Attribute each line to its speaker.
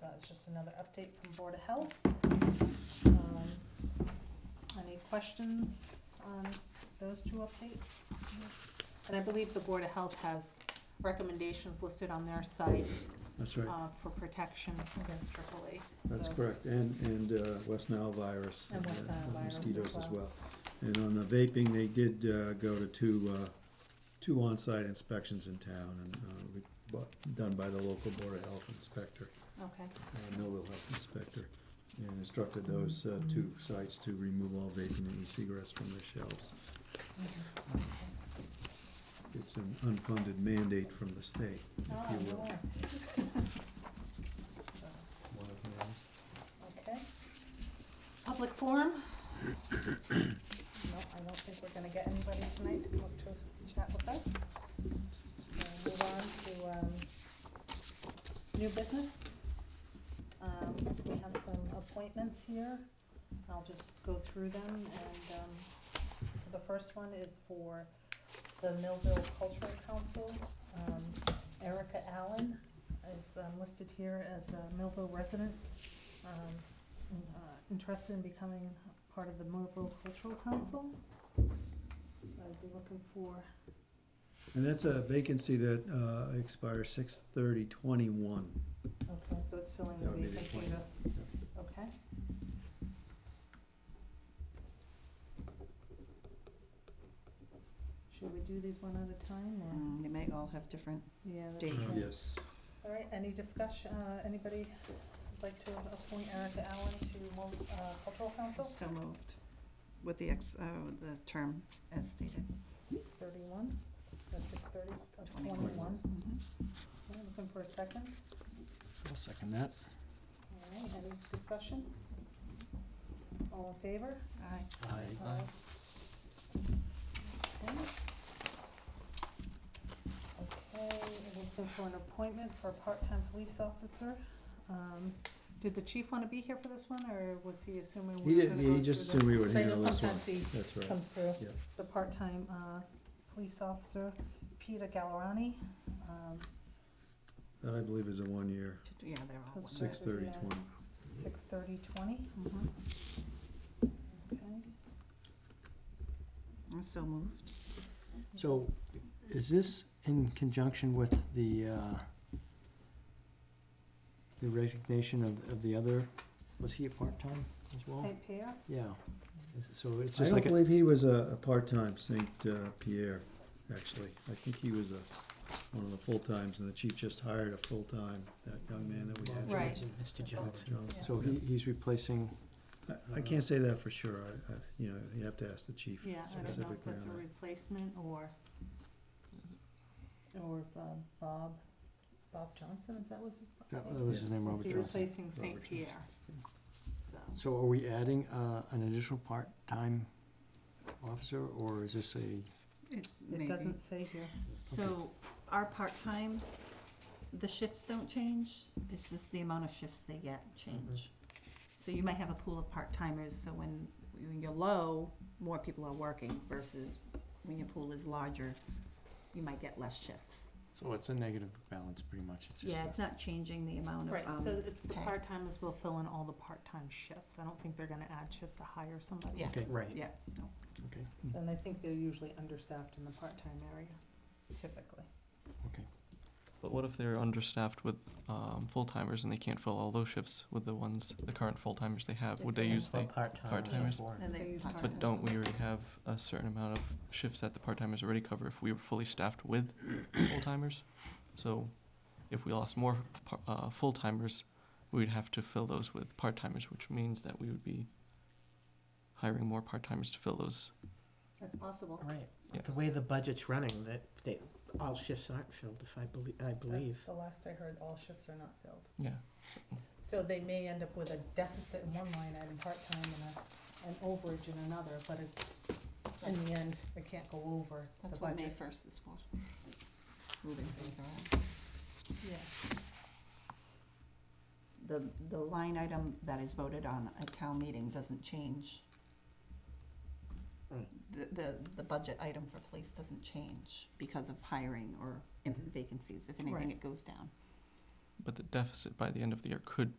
Speaker 1: that was just another update from Board of Health. Um, Any questions on those two updates? And I believe the Board of Health has recommendations listed on their site
Speaker 2: That's right,
Speaker 1: uh, for protection against AAA.
Speaker 2: that's
Speaker 1: so-
Speaker 2: correct, and, and uh, West Nile virus.
Speaker 1: And West
Speaker 2: uh,
Speaker 1: Nile virus as
Speaker 2: Mosquitoes as
Speaker 1: well.
Speaker 2: well. And on the vaping, they did uh, go to two, uh, two on-site inspections in town, and uh, we- bu- done by the local Board of Health Inspector,
Speaker 1: Okay,
Speaker 2: uh, Millville Health Inspector, and instructed those uh, two sites to remove all vaping and e-cigarettes from their shelves. It's an unfunded mandate from the state, if
Speaker 1: Ah,
Speaker 2: you will.
Speaker 1: yeah. So,
Speaker 2: One of them.
Speaker 1: Okay. Public forum? No, I don't think we're gonna get anybody tonight to look to chat with us. So move on to, um, new business. Um, we have some appointments here. I'll just go through them and, um, the first one is for the Millville Cultural Council. Um, Erica Allen is um, listed here as a Millville resident um, in- uh, interested in becoming part of the Millville Cultural Council. So I'd be looking for,
Speaker 2: And that's a vacancy that uh, expires six thirty twenty-one.
Speaker 1: okay, so it's filling the
Speaker 2: That would be the
Speaker 1: vacancy,
Speaker 2: appointment.
Speaker 1: the- okay? Should we do these one at a time or?
Speaker 3: Mm, They may all have different,
Speaker 1: Yeah. that's
Speaker 3: Dates.
Speaker 1: right.
Speaker 2: Yes.
Speaker 1: All right, any discussion, uh, anybody would like to appoint Erica Allen to Millville uh, Cultural Council?
Speaker 3: so moved, with the ex, uh, the term as stated.
Speaker 1: Six thirty-one, uh, six thirty, uh,
Speaker 3: Twenty-one.
Speaker 1: twenty-one.
Speaker 3: Mhm.
Speaker 1: Okay, Looking for a second.
Speaker 4: I'll second that.
Speaker 1: All right, any discussion? All in favor?
Speaker 3: Aye.
Speaker 4: Aye.
Speaker 1: Okay, Okay, we're looking for an appointment for a part-time police officer. Um, Did the chief want to be here for this one, or was he assuming
Speaker 2: He
Speaker 1: we were
Speaker 2: didn't,
Speaker 1: gonna
Speaker 2: he
Speaker 1: go
Speaker 2: just
Speaker 1: through
Speaker 2: assumed we would
Speaker 1: the- I know
Speaker 2: handle this one.
Speaker 1: sometimes he
Speaker 2: That's right.
Speaker 1: comes through.
Speaker 2: Yeah.
Speaker 1: The part-time uh, police officer, Peter Gallerani. um,
Speaker 2: That I believe is a one-year,
Speaker 3: To do- Yeah, they're all
Speaker 1: That's
Speaker 3: one.
Speaker 2: six thirty twenty.
Speaker 1: Six thirty twenty,
Speaker 3: Mhm.
Speaker 1: okay.
Speaker 3: I'm So moved.
Speaker 4: So is this in conjunction with the, uh, the resignation of, of the other, was he a part-time as well?
Speaker 1: St. Pierre,
Speaker 4: Yeah. Is it- So it's
Speaker 2: I
Speaker 4: just
Speaker 2: don't
Speaker 4: like, a-
Speaker 2: believe he was a, a part-time Saint uh, Pierre, actually. I think he was a, one of the full-times, and the chief just hired a full-time, that young man that we had.
Speaker 1: Right.
Speaker 4: Mr.
Speaker 2: Robert Johnson.
Speaker 4: So he, he's replacing,
Speaker 2: I, I can't say that for sure. I, I, you know, you have to ask the chief
Speaker 1: yeah, I don't know if
Speaker 2: specifically on
Speaker 1: that's a
Speaker 2: that.
Speaker 1: replacement or, or if, uh, Bob, Bob Johnson, is that was his?
Speaker 4: that
Speaker 1: name?
Speaker 4: that was his name,
Speaker 1: Is
Speaker 4: Robert
Speaker 1: he
Speaker 4: Johnson.
Speaker 1: replacing St.
Speaker 2: Robert Johnson.
Speaker 1: Pierre? So,
Speaker 4: So are we adding, uh, an additional part-time officer, or is this a?
Speaker 3: It
Speaker 1: it
Speaker 3: may be.
Speaker 1: doesn't say here.
Speaker 3: So our part-time, the shifts don't change, it's just the amount of shifts they get change. So you might have a pool of part-timers, so when, when you're low, more people are working versus when your pool is larger, you might get less shifts.
Speaker 4: So it's a negative balance, pretty much, it's
Speaker 3: Yeah, it's not changing the amount of,
Speaker 1: Right,
Speaker 3: um,
Speaker 1: so it's the
Speaker 3: pay.
Speaker 1: part-timers will fill in all the part-time shifts. I don't think they're gonna add shifts to hire somebody.
Speaker 3: Yeah.
Speaker 4: Okay, right,
Speaker 3: Yeah, no.
Speaker 4: okay.
Speaker 1: And I think they're usually understaffed in the part-time area, typically.
Speaker 5: But what if they're understaffed with um, full timers and they can't fill all those shifts with the ones the current full timers they have? Uh, Would they use the? part-timers.
Speaker 3: And
Speaker 1: They
Speaker 3: they.
Speaker 1: use part-timers.
Speaker 5: But don't we already have a certain amount of shifts that the part timers already cover if we were fully staffed with full timers? So, if we lost more par- uh, full timers, we'd have to fill those with part timers, which means that we would be hiring more part timers to fill those.
Speaker 1: That's possible.
Speaker 6: Right,
Speaker 5: Yeah.
Speaker 6: the way the budget's running, that, they, all shifts aren't filled, if I believe, I believe.
Speaker 1: The last I heard, all shifts are not filled.
Speaker 5: Yeah.
Speaker 1: So they may end up with a deficit in one line item part-time and a, an overage in another, but it's, in the end, it can't go over the
Speaker 3: That's what May
Speaker 1: budget.
Speaker 3: first is for. Moving things around.
Speaker 1: Yeah.
Speaker 3: The, the line item that is voted on at town meeting doesn't change.
Speaker 6: Right.
Speaker 3: The, the, the budget item for police doesn't change because of hiring or
Speaker 6: Mhm.
Speaker 3: vacancies. If
Speaker 1: Right.
Speaker 3: anything, it goes down.
Speaker 5: But the deficit by the end of the year could